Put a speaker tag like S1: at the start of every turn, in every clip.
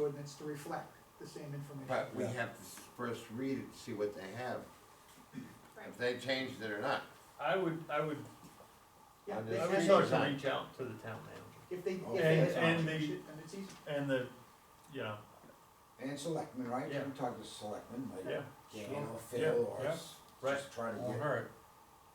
S1: ordinance to reflect the same information.
S2: But we
S3: Yeah.
S2: have to s- first read it, see what they have,
S4: Right.
S2: if they changed it or not.
S5: I would, I would,
S1: Yeah,
S2: And
S1: they
S5: I
S2: it's
S1: have
S5: would
S1: it.
S5: start to
S2: design.
S5: reach out to the town manager.
S1: if they, if
S3: And-
S1: they have
S5: and
S1: it,
S5: the-
S1: then it's easy.
S5: And the, you know,
S3: And selectmen, right?
S5: Yeah.
S3: We talked to selectmen,
S5: yeah,
S3: like Dan
S2: Sure.
S3: or
S5: Yeah,
S3: Phil, or
S5: yeah.
S3: s-
S5: Right. Uh-huh.
S3: just try to
S6: Won't
S3: get,
S6: hurt.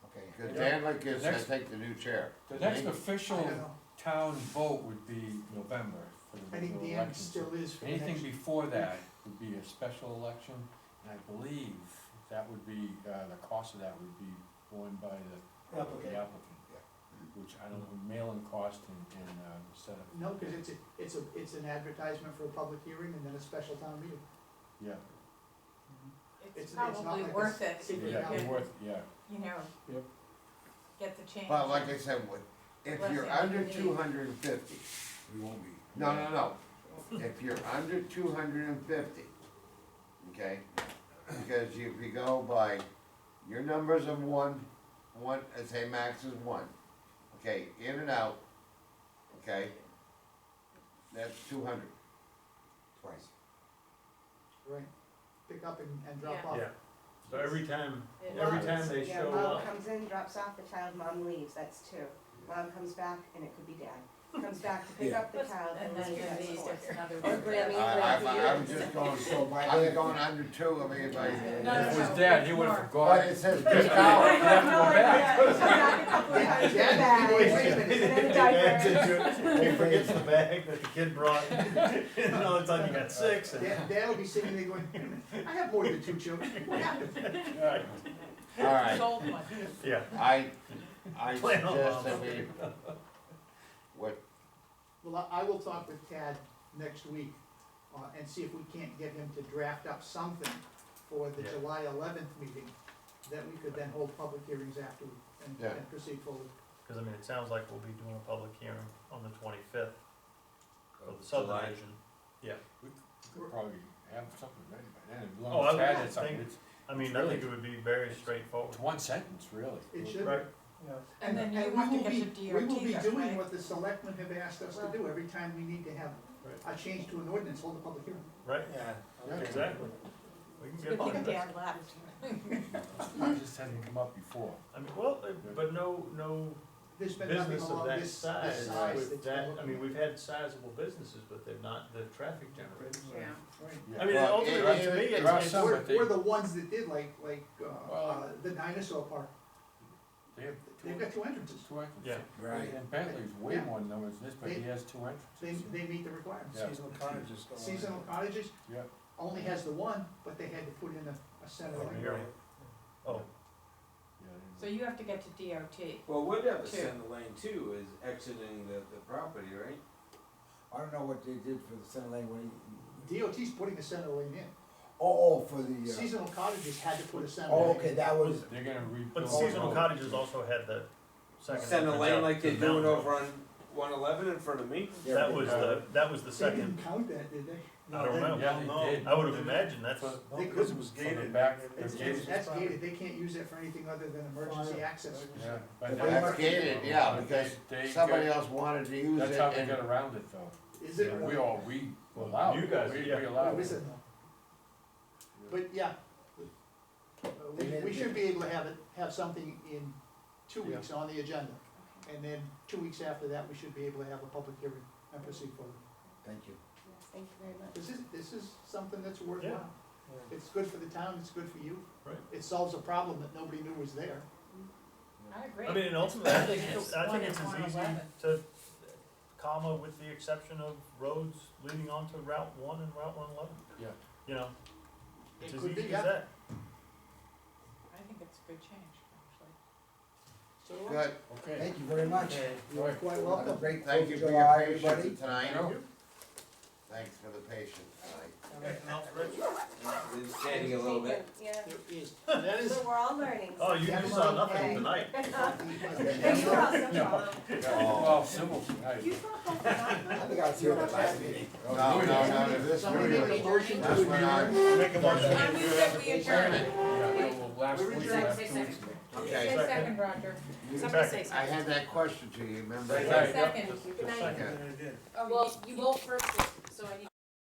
S3: okay.
S2: Cause
S5: Yeah.
S2: Dan like is, I
S6: Next-
S2: take the new chair.
S6: The next
S2: Maybe.
S1: I
S6: official
S1: don't know,
S6: town vote would be November for the
S1: I think
S6: regular
S1: Dan
S6: election.
S1: still is for the next.
S6: Anything before that would be a special election, and I believe that would be, uh, the cost of that would be borne by the the
S1: Applicant.
S6: applicant. Which I don't know, mailing cost and, and, uh, setup.
S1: No, cause it's a, it's a, it's an advertisement for a public hearing and then a special town meeting.
S6: Yeah,
S1: It's-
S4: It's
S1: it's not
S4: probably
S1: like a
S4: worth it, if you
S1: secret
S6: yeah,
S1: ballot.
S6: it's
S4: get,
S6: worth, yeah,
S4: you know,
S3: Yep.
S4: get the change.
S2: But like I said, with- if
S4: Let's
S2: you're
S4: say
S2: under
S4: we-
S2: two hundred and fifty,
S3: We won't be.
S2: no, no, no, if you're under two hundred and fifty, okay? Because if you go by your numbers of one, one, I say max is one, okay, in and out, okay? That's two hundred.
S3: Twice.
S1: Right, pick up and, and drop
S4: Yeah.
S1: off.
S5: yeah. So every time,
S7: It
S5: every
S7: is.
S5: time they
S7: Yeah,
S5: show
S7: mom
S5: up,
S7: comes in, drops off the child, mom leaves, that's two. Mom comes back, and it could be dad. Comes back to pick
S3: Yeah.
S7: up the child,
S4: And
S7: and
S4: that's
S7: then
S4: gonna
S7: that's
S4: be
S7: four.
S4: just another.
S7: Or
S4: one.
S7: Grammy,
S2: I,
S7: Grammy.
S2: I, I'm just going,
S3: So by
S2: I'm
S3: then,
S2: going under two, I mean, by,
S4: No, no,
S6: if it was
S4: no,
S6: dead, he
S4: it's
S6: would've
S4: more.
S2: but
S6: forgotten.
S2: it says
S4: Oh, I
S2: discount.
S4: have no
S6: back.
S4: idea.
S7: Comes back a couple of times,
S1: Yeah.
S7: the bag,
S1: Wait a
S7: and then the diaper.
S5: He forgets the bag that the kid brought, and all of a sudden you got six, and
S1: Dad, Dad'll be sitting there going, "Wait a minute, I have more than two children, what happened?
S2: Alright,
S4: Sold one.
S5: yeah.
S2: I, I
S5: Plan on
S2: suggest
S5: mom.
S2: that we, what,
S1: Well, I I will talk with Tad next week, uh, and see if we can't get him to draft up something for the
S5: Yeah.
S1: July eleventh meeting, that we could then hold public hearings after and,
S2: Yeah.
S1: and proceed forward.
S5: Cause I mean, it sounds like we'll be doing a public hearing on the twenty-fifth of the subdivision.
S6: we could probably have something ready by then, as
S5: Oh,
S6: long
S5: I
S6: as
S5: would
S6: Tad had something,
S5: think-
S6: it's,
S5: I mean, I think it would be very straightforward.
S6: it's one sentence, really.
S1: It should.
S5: Right,
S4: And then you
S1: we
S4: have to
S1: will
S4: get
S1: be-
S4: your DRT
S1: We will
S4: done,
S1: be doing
S4: right?
S1: what the selectmen have asked us to
S4: Well-
S1: do every time we need to have
S5: Right.
S1: a change to an ordinance, hold a public hearing.
S5: right,
S6: Yeah.
S5: exactly. We can
S4: Good
S5: get on
S4: thing
S5: to that.
S4: Dad left.
S6: It just hasn't come up before.
S5: I mean, well, uh, but no, no
S1: There's been nothing
S5: business of
S1: along
S5: that
S1: this, this
S5: size,
S1: size
S5: with
S1: that's been
S5: that, I
S1: looking
S5: mean,
S1: at.
S5: we've had sizable businesses, but they're not the traffic generators.
S4: Yeah.
S1: Right.
S6: Yeah.
S5: I mean,
S2: Well,
S5: ultimately,
S2: it-
S5: to me,
S2: it-
S5: it's,
S6: there are
S5: it's-
S6: some-
S1: We're,
S6: but they-
S1: we're the ones that did like, like, uh, uh,
S6: Well-
S1: the dinosaur park,
S6: They have two,
S1: they've got two entrances,
S6: two entrances.
S5: Yeah.
S3: Right.
S6: And Bentley's way
S1: Yeah.
S6: more numbers than this, but he has two
S1: they,
S6: entrances.
S1: they meet the requirements.
S6: Yeah.
S3: Seasonal cottages go on.
S1: Seasonal cottages
S6: Yeah.
S1: only has the one, but they had to put in a, a center
S5: Oh,
S1: lane.
S5: you're right. Oh,
S6: Yeah, they-
S4: So you have to get to DRT.
S8: Well, whatever
S4: Two.
S8: send the lane two is exiting the, the property, right?
S3: I don't know what they did for the center lane, what he,
S1: DOT's putting a center lane in,
S3: oh, oh, for the,
S1: seasonal cottages had to put a
S3: uh,
S1: center
S3: oh,
S1: lane.
S3: okay, that was,
S6: They're gonna rebuild.
S5: but
S3: Oh,
S5: seasonal
S3: no.
S5: cottages also had the second.
S8: Send a
S5: entrance out
S8: lane like
S5: to
S8: they're
S5: the mountain
S8: doing over
S5: road.
S8: on one eleven in front of me?
S3: Yeah,
S5: That
S3: they-
S5: was the, that was the
S1: They
S5: second,
S1: didn't count that, did they?
S5: I don't know.
S6: Yeah, they did.
S5: I would have imagined that's,
S6: For-
S1: They
S6: because
S1: couldn't.
S6: it was gated. back,
S1: It's,
S6: they're
S1: it's,
S6: gated.
S1: that's gated, they can't use it for anything other than emergency access.
S6: Yeah, but
S3: But
S6: that-
S2: that's gated, yeah,
S6: but they-
S2: because
S6: they
S2: somebody
S6: got-
S2: else wanted to use
S6: That's
S2: it
S6: how they
S2: and,
S6: got around it though.
S1: Is it?
S6: We all, we allowed.
S5: You
S6: it.
S5: guys,
S6: We-
S5: yeah.
S6: We allowed.
S1: Oh,
S6: it.
S1: is it? But, yeah. Uh, We, we should be able to have it, have something in two weeks on the agenda. And then two weeks after that, we should be able to have a public hearing and proceed forward.
S3: Thank you.
S7: Thank you very much.
S1: This is, this is something that's worthwhile. It's good for the town, it's good for you.
S5: Right.
S1: It solves a problem that nobody knew was there.
S4: I agree.
S5: I mean, and ultimately, I think
S4: It's
S5: it's, I think it's
S4: one
S5: as easy
S4: eleven.
S5: to, comma, with the exception of roads leading onto Route one and Route one eleven.
S6: Yeah.
S5: You know, it's
S1: It
S5: as
S1: could be,
S5: easy
S1: yeah.
S5: as that.
S4: I think it's a good change,
S1: So,
S2: good,
S6: Okay.
S3: Thank you very much.
S1: you're quite
S3: Have a
S1: welcome.
S3: great
S2: thank
S3: Fourth
S2: you
S3: of
S2: for
S3: July,
S2: your
S3: everybody.
S2: patience tonight,
S6: Thank
S2: thanks for the patience tonight.
S5: Anything else, Rich?
S8: They're standing a little bit.
S7: Yeah,
S1: There is, that is.
S7: so we're all learning.
S5: Oh, you you saw nothing tonight.
S7: And you were also
S6: No.
S7: wrong.
S6: Well, civil tonight.
S7: You thought that was
S3: I think I was here at the last meeting.
S2: No, no, no, no, this,
S1: Somebody make a
S2: this
S1: motion to
S2: went
S1: adjourn.
S2: on,
S5: Make a motion.
S4: I move that we adjourn.
S6: Yeah, well, last
S1: We're
S6: week,
S1: adjourned.
S6: last two weeks ago.
S2: okay.
S4: Say second, Roger. Somebody say
S2: I
S4: second.
S2: had that question to you, remember?
S6: Right.
S4: Second.
S5: Just a second.
S4: Oh,
S2: Yeah.
S4: Well, you both first, so I need